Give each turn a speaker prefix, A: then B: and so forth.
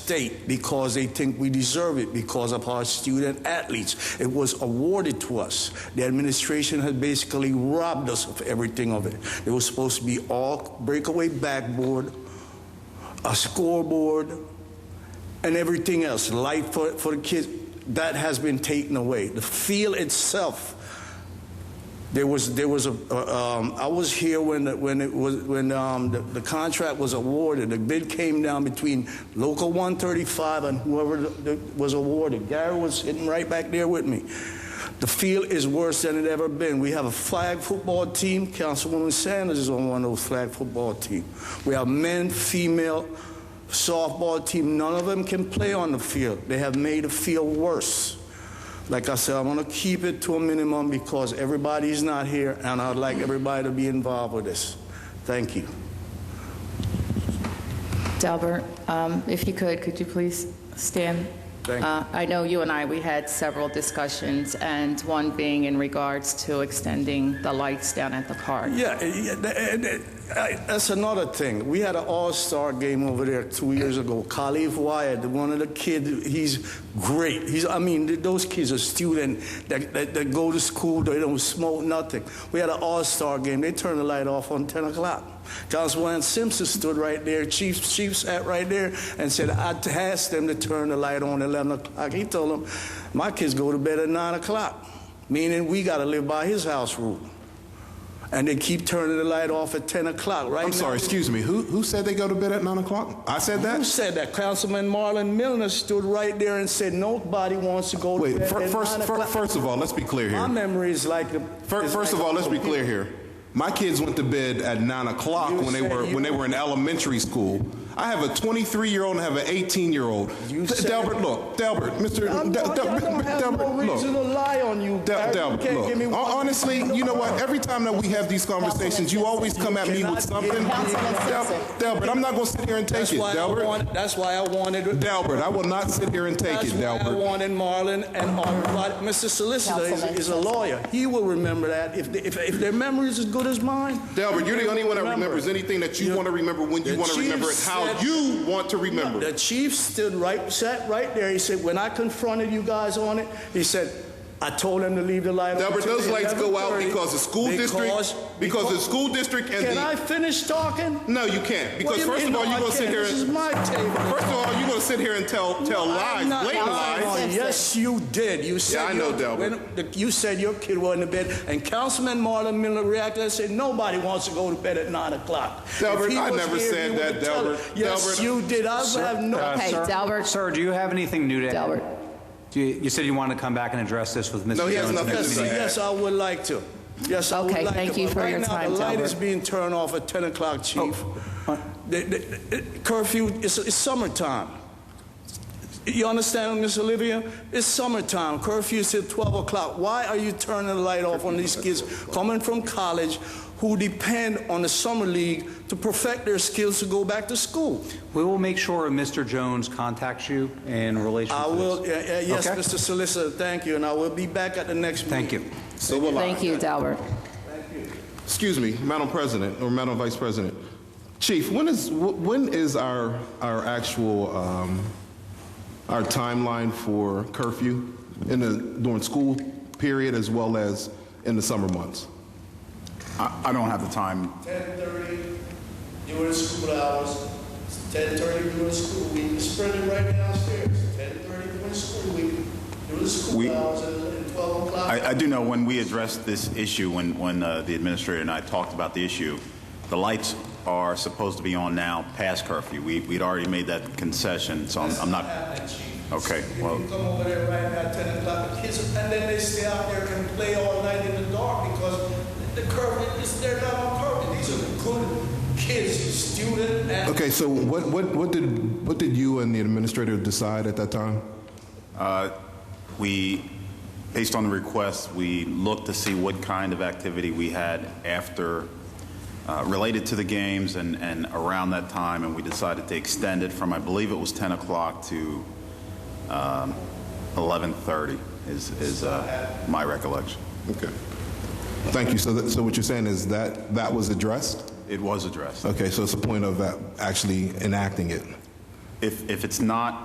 A: state because they think we deserve it because of our student athletes. It was awarded to us. The administration has basically robbed us of everything of it. It was supposed to be all breakaway backboard, a scoreboard, and everything else, light for, for the kids. That has been taken away. The field itself. There was there was a uh, um, I was here when the, when it was when um, the, the contract was awarded. The bid came down between local 135 and whoever the, the, was awarded. Gary was sitting right back there with me. The field is worse than it ever been. We have a flag football team. Councilwoman Sanders is on one of those flag football team. We have men, female softball team. None of them can play on the field. They have made the field worse. Like I said, I'm going to keep it to a minimum because everybody's not here, and I'd like everybody to be involved with this. Thank you.
B: Delbert, um, if you could, could you please stand?
A: Thank you.
B: Uh, I know you and I, we had several discussions, and one being in regards to extending the lights down at the park.
A: Yeah, eh, yeah, th- eh, th- eh, that's another thing. We had an all-star game over there two years ago. Khalif Wyatt, one of the kids, he's great. He's, I mean, th- those kids are students that, that, that go to school, they don't smoke nothing. We had an all-star game. They turned the light off on 10 o'clock. Councilman Simpson stood right there, chief, chief sat right there and said, I t- asked them to turn the light on at 11 o'clock. He told them, my kids go to bed at 9 o'clock, meaning we got to live by his house rule and they keep turning the light off at 10 o'clock, right?
C: I'm sorry, excuse me. Who, who said they go to bed at 9 o'clock? I said
A: Who
C: that?
A: said that? Councilman Marlon Milner stood right there and said nobody wants to go to
C: Wait,
A: bed
C: fir-
A: at
C: first,
A: 9
C: fir-
A: o'clock."
C: first of all, let's be clear
A: My
C: here.
A: memory is like... a-
C: Fir-
A: is
C: First
A: like
C: of all,
A: a-
C: let's be clear here. My kids went to bed at 9 o'clock
A: You
C: when they
A: said
C: were,
A: you-
C: when they were in elementary school. I have a 23-year-old and I have an 18-year-old.
A: You said-
C: Delbert, look, Delbert, Mr.
A: I don't,
C: Del-
A: I
C: Del-
A: don't have
C: Delbert,
A: no
C: look.
A: reason to lie on you,
C: Del-
A: Barry. You
C: Del,
A: can't
C: look,
A: give me
C: hon-
A: one-
C: honestly, you know what? Every time that we have these conversations, you always come at me with
A: Cannot get-
C: something. Del- Delbert, I'm not going to sit here and take
A: That's
C: it,
A: why I
C: Delbert.
A: want- That's why I wanted...
C: Delbert, I will not sit here and take
A: That's
C: it,
A: why I
C: Delbert.
A: wanted Marlon and everybody. Mr. Solicitor is, is a lawyer. He will remember that. If, they, if, if their memory is as good as mine,
C: Delbert, you're the only one that
A: Remember.
C: remembers anything that you want to remember when you
A: the
C: want to
A: chief
C: remember it, how
A: said-
C: you want to remember
A: The
C: it.
A: chief stood right, sat right there. He said, when I confronted you guys on it, he said, I told them to leave the light on.
C: Delbert,
A: till
C: those lights go out
A: 11:30
C: because the school
A: because-
C: district, because the school district and
A: Can I
C: the,
A: finish talking?
C: no, you can't.
A: What do
C: Because
A: you
C: first
A: mean,
C: of all,
A: no,
C: you're
A: I
C: going to sit
A: can't?
C: here,
A: This is
C: and-
A: my table.
C: first of all, you're going to sit here and tell, tell lies,
A: I'm not
C: blatant
A: lying
C: lies.
A: on you. Yes, you did. You said
C: I know,
A: your-
C: Delbert.
A: when the- You said your kid was in the bed, and Councilman Marlon Miller reacted and said nobody wants to go to bed at nine o'clock. If
C: Delbert,
A: he
C: I
A: was
C: never
A: here,
C: said
A: you
C: that,
A: would tell
C: Delbert.
A: it. Yes,
C: Delbert.
A: you did. I have no.
B: Okay,
D: sir-
B: Delbert.
D: Sir, do you have anything new to add?
B: Delbert.
D: Do You you said you wanted to come back and address this with Mr. Jones.
C: No, he has
D: next
C: nothing to
A: Yes,
C: say.
D: meeting.
A: yes, I would like to. Yes, I would
B: Okay,
A: like
B: thank
A: to.
B: you
A: But
B: for
A: right
B: your
A: now,
B: time,
A: the light is
B: Delbert.
A: being turned off at 10
D: Oh,
A: o'clock, Chief.
D: uh,
A: The- the- the curfew, it's, it's summertime. You understand, Miss Olivia? It's summertime. Curfew is till 12 o'clock. Why are you turning the light off on these kids coming from college who depend on the summer league to perfect their skills to go back to school?
D: We will make sure Mr. Jones contacts you in relation
A: I
D: to
A: will, uh, uh,
D: this.
A: yes,
D: Okay.
A: Mr. Solicitor, thank you, and I will be back at the next meeting.
D: Thank you.
C: So will I.
B: Thank you, Delbert.
C: Excuse me, Madam President or Madam Vice President. Chief, when is, wh- when is our, our actual, um, our timeline for curfew in the, during school period as well as in the summer months?
E: I I don't have the time.
A: 10:30 during school hours, 10:30 during school week, it's spreading right downstairs, 10:30 during school week, during
E: We-
A: school hours, and and 12 o'clock.
E: I, I do know when we addressed this issue, when, when uh, the administrator and I talked about the issue, the lights are supposed to be on now past curfew. We, we'd already made that concession, so I'm, I'm not. Okay, well,
A: You come over there right now, 10 o'clock, the kids, and then they stay out there and play all night in the dark because the curfew, is they're not on curfew, these are good kids, student athletes.
C: Okay, so what, what, what did, what did you and the administrator decide at that time?
E: we, based on the request, we looked to see what kind of activity we had after, uh, related to the games and, and around that time, and we decided to extend it from, I believe it was 10 o'clock to um, 11:30 is, is uh, my recollection.
C: Okay. Thank you. So that, so what you're saying is that, that was addressed?
E: It was addressed.
C: Okay, so it's a point of uh, actually enacting it.
E: If, if it's not